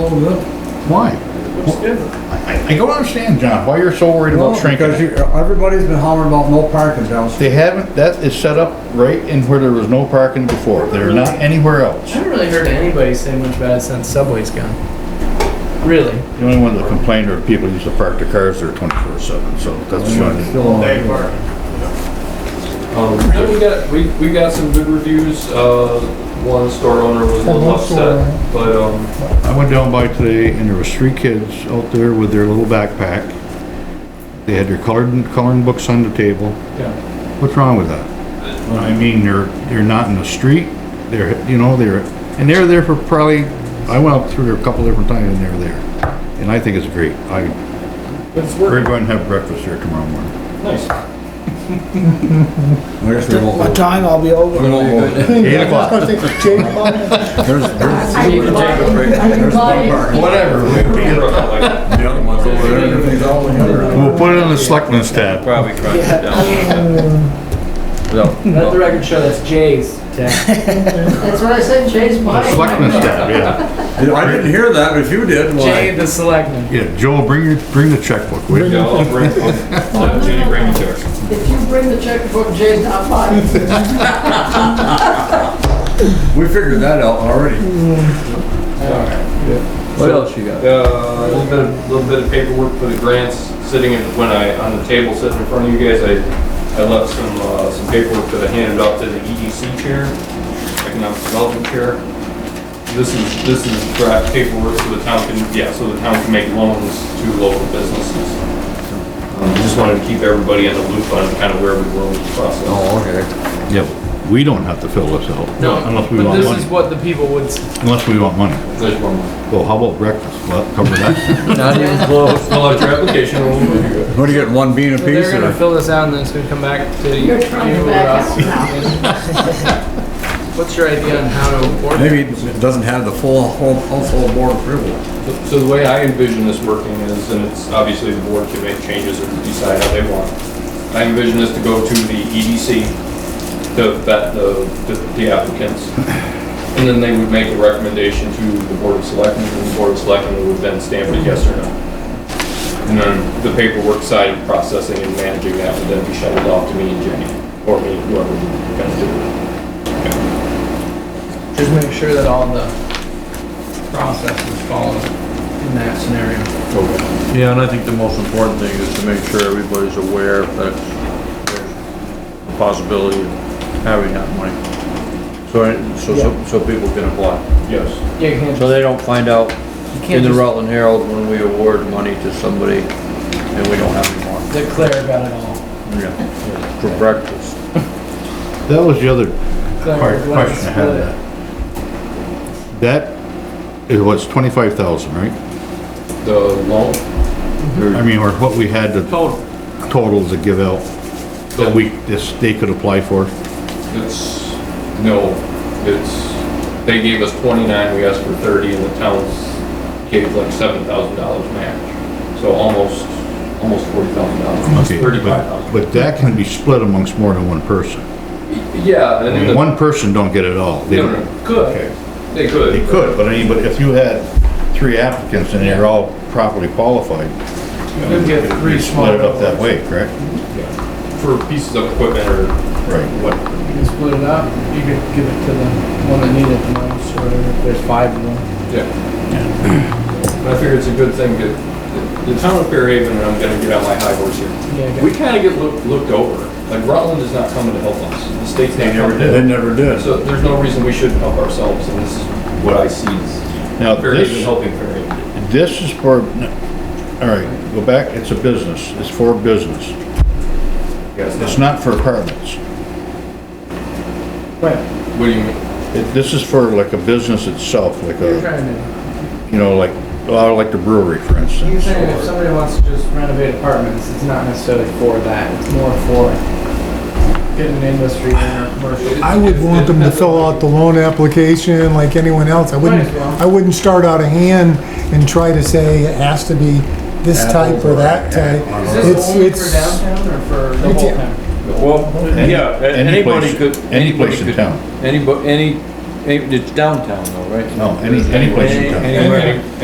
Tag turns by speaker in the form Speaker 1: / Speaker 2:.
Speaker 1: Why?
Speaker 2: Um,
Speaker 1: I, I- I don't understand, John, why you're so worried
Speaker 3: No,
Speaker 1: about shrinking
Speaker 3: because
Speaker 1: it.
Speaker 3: you- everybody's been hollering about no parking downstairs.
Speaker 1: They haven't, that is set up right in where there was no parking before. They're not anywhere
Speaker 4: I
Speaker 1: else.
Speaker 4: haven't really heard anybody say much about it since Subway's gone. Really?
Speaker 1: The only ones that complained are people who used to park their cars there twenty-four seven, so that's shocking.
Speaker 3: Still on.
Speaker 2: Um, then we got, we, we got some good reviews, uh, one store owner was a
Speaker 3: Oh,
Speaker 2: little
Speaker 3: one store owner.
Speaker 2: upset, but, um,
Speaker 1: I went down by today and there was three kids out there with their little backpack. They had their colored, coloring books on the table.
Speaker 2: yeah,
Speaker 1: What's wrong with that? I mean, they're, they're not in the street, they're, you know, they're, and they're there for probably, I went up through there a couple different times and they were there. And I think it's great. I,
Speaker 2: but it's
Speaker 1: we're
Speaker 2: working,
Speaker 1: going to have breakfast there tomorrow morning.
Speaker 2: nice.
Speaker 3: I guess we won't
Speaker 5: What
Speaker 3: go.
Speaker 5: time I'll be
Speaker 3: We
Speaker 5: over?
Speaker 3: won't go.
Speaker 1: Eight o'clock,
Speaker 3: There's, there's.
Speaker 6: I can buy it. I can
Speaker 3: There's
Speaker 6: buy
Speaker 3: no
Speaker 6: it.
Speaker 3: parking.
Speaker 1: whatever.
Speaker 2: The other one's
Speaker 3: Over there, everything's all in there.
Speaker 1: We'll put it on the selectmen's tab.
Speaker 2: Probably crunching it down.
Speaker 4: Let the record show that's Jay's tax.
Speaker 6: That's what I said, Jay's
Speaker 1: The
Speaker 6: mine.
Speaker 1: Selectmen's tab, yeah.
Speaker 3: I didn't hear that, but if you did,
Speaker 4: Jay
Speaker 3: why?
Speaker 4: the selectman.
Speaker 1: Yeah, Joel, bring your, bring the checkbook with
Speaker 2: Yeah,
Speaker 1: you.
Speaker 2: I'll bring, I'll, I'll, Jenny, bring it to her.
Speaker 6: If you bring the checkbook, Jay's not mine.
Speaker 3: We figured that out already.
Speaker 7: What else you got?
Speaker 2: Uh, a little bit, of- little bit of paperwork for the grants, sitting in, when I, on the table sitting in front of you guys, I, I left some, uh, some paperwork that I handed out to the EDC chair, Economic Development Chair. This is, this is draft paperwork so the town can, yeah, so the town can make loans to local businesses. Um, Just wanted to keep everybody in the loop on kind of where we were with the process.
Speaker 3: Oh, okay.
Speaker 1: Yeah, we don't have to fill this out. Unless we
Speaker 4: But
Speaker 1: want
Speaker 4: this is
Speaker 1: money,
Speaker 4: what the people would, s-
Speaker 1: unless we want money.
Speaker 2: There's one more.
Speaker 1: Well, how about breakfast? Well, cover that.
Speaker 7: Not even close.
Speaker 2: Fill out your application. and we'll review it.
Speaker 3: What do you get, one bean a piece?
Speaker 4: they're gonna
Speaker 3: or-
Speaker 4: fill this out and then it's gonna come back to you.
Speaker 6: You're trying to
Speaker 4: or
Speaker 6: back
Speaker 4: us.
Speaker 6: out now.
Speaker 4: What's your idea on how to work?
Speaker 3: Maybe it doesn't have the full whole- household board approval.
Speaker 2: So the way I envision this working is, and it's obviously the board can make changes or decide how they want. I envision this to go to the EDC, to vet the, the- the applicants. And then they would make a recommendation to the board of selectmen, and the board of selectmen would then stamp it yes or no. And then the paperwork side of processing and managing that would then be shuttled off to me and Jenny, or me, whoever we're gonna do it.
Speaker 4: Just make sure that all the process is followed in that scenario.
Speaker 7: Yeah, and I think the most important thing is to make sure everybody's aware that there's a possibility of having that money. So, I- so, so- so people can apply.
Speaker 2: Yes.
Speaker 4: Yeah, you can't
Speaker 7: So
Speaker 4: just,
Speaker 7: they don't find out
Speaker 4: you
Speaker 7: in
Speaker 4: can't
Speaker 7: the
Speaker 4: just
Speaker 7: Rutland Herald when we award money to somebody and we don't have any more.
Speaker 4: declare about it all.
Speaker 7: Yeah. For breakfast.
Speaker 1: That was the other
Speaker 4: Declare
Speaker 1: part,
Speaker 4: what it's
Speaker 1: question I had
Speaker 4: split.
Speaker 1: of that. That is what's twenty-five thousand, right?
Speaker 2: The loan,
Speaker 1: I mean, or what we had to
Speaker 4: Total.
Speaker 1: total to give out that
Speaker 2: Yeah.
Speaker 1: we, this, they could apply for.
Speaker 2: It's, no, it's, they gave us twenty-nine, we asked for thirty, and the towns gave like seven thousand dollars match. So almost, almost forty thousand dollars,
Speaker 1: Okay, but-
Speaker 2: thirty-five thousand.
Speaker 1: But that can be split amongst more than one person.
Speaker 2: Yeah, and then the,
Speaker 1: One person don't get it all. They
Speaker 2: no,
Speaker 1: don't-
Speaker 2: no, no, could,
Speaker 1: Okay.
Speaker 2: they could.
Speaker 1: They could, but anybody, if you had three applicants and they're all properly qualified,
Speaker 4: You'll get three
Speaker 1: you
Speaker 4: small.
Speaker 1: split it up that way, correct?
Speaker 2: Yeah. For pieces of equipment or
Speaker 1: Right.
Speaker 2: what,
Speaker 4: You can split it up, you could give it to the one that needed the most, or whatever, if there's five of them.
Speaker 2: yeah. And I figure it's a good thing that, the town of Fairhaven, and I'm gonna get on my high horse here,
Speaker 4: Yeah,
Speaker 2: we kinda get looked, looked over. Like Rutland is not coming to help us, the state's not coming. to-
Speaker 3: They never did.
Speaker 2: So there's no reason we shouldn't help ourselves, and this is what I see is
Speaker 1: Now,
Speaker 2: Fairhaven
Speaker 1: Uh, this,
Speaker 2: helping Fairhaven.
Speaker 1: this is for, all right, go back, it's a business, it's for business.
Speaker 2: Yes,
Speaker 1: It's not for apartments.
Speaker 4: Right,
Speaker 2: What do you mean?
Speaker 1: It- This is for like a business itself, like
Speaker 4: you're
Speaker 1: a,
Speaker 4: trying to,
Speaker 1: you know, like, uh, like the brewery, for instance.
Speaker 4: you're saying if somebody wants to just renovate apartments, it's not necessarily for that, it's more for getting an industry in or commercial.
Speaker 8: I would want them to fill out the loan application like anyone else. I wouldn't,
Speaker 4: Might as well.
Speaker 8: I wouldn't start out a hand and try to say it has to be this type or that type.
Speaker 4: Is
Speaker 8: It's,
Speaker 4: this only for
Speaker 8: it's,
Speaker 4: downtown or for the whole
Speaker 8: It's-
Speaker 4: town?
Speaker 7: Well, yeah, a-
Speaker 1: any place-
Speaker 7: anybody could.
Speaker 1: any place
Speaker 7: anybody
Speaker 1: in
Speaker 7: could-
Speaker 1: town.
Speaker 7: Anybody, any, any- it's downtown though, right?
Speaker 1: No, any, any place you go.
Speaker 7: Anywhere.
Speaker 2: Any-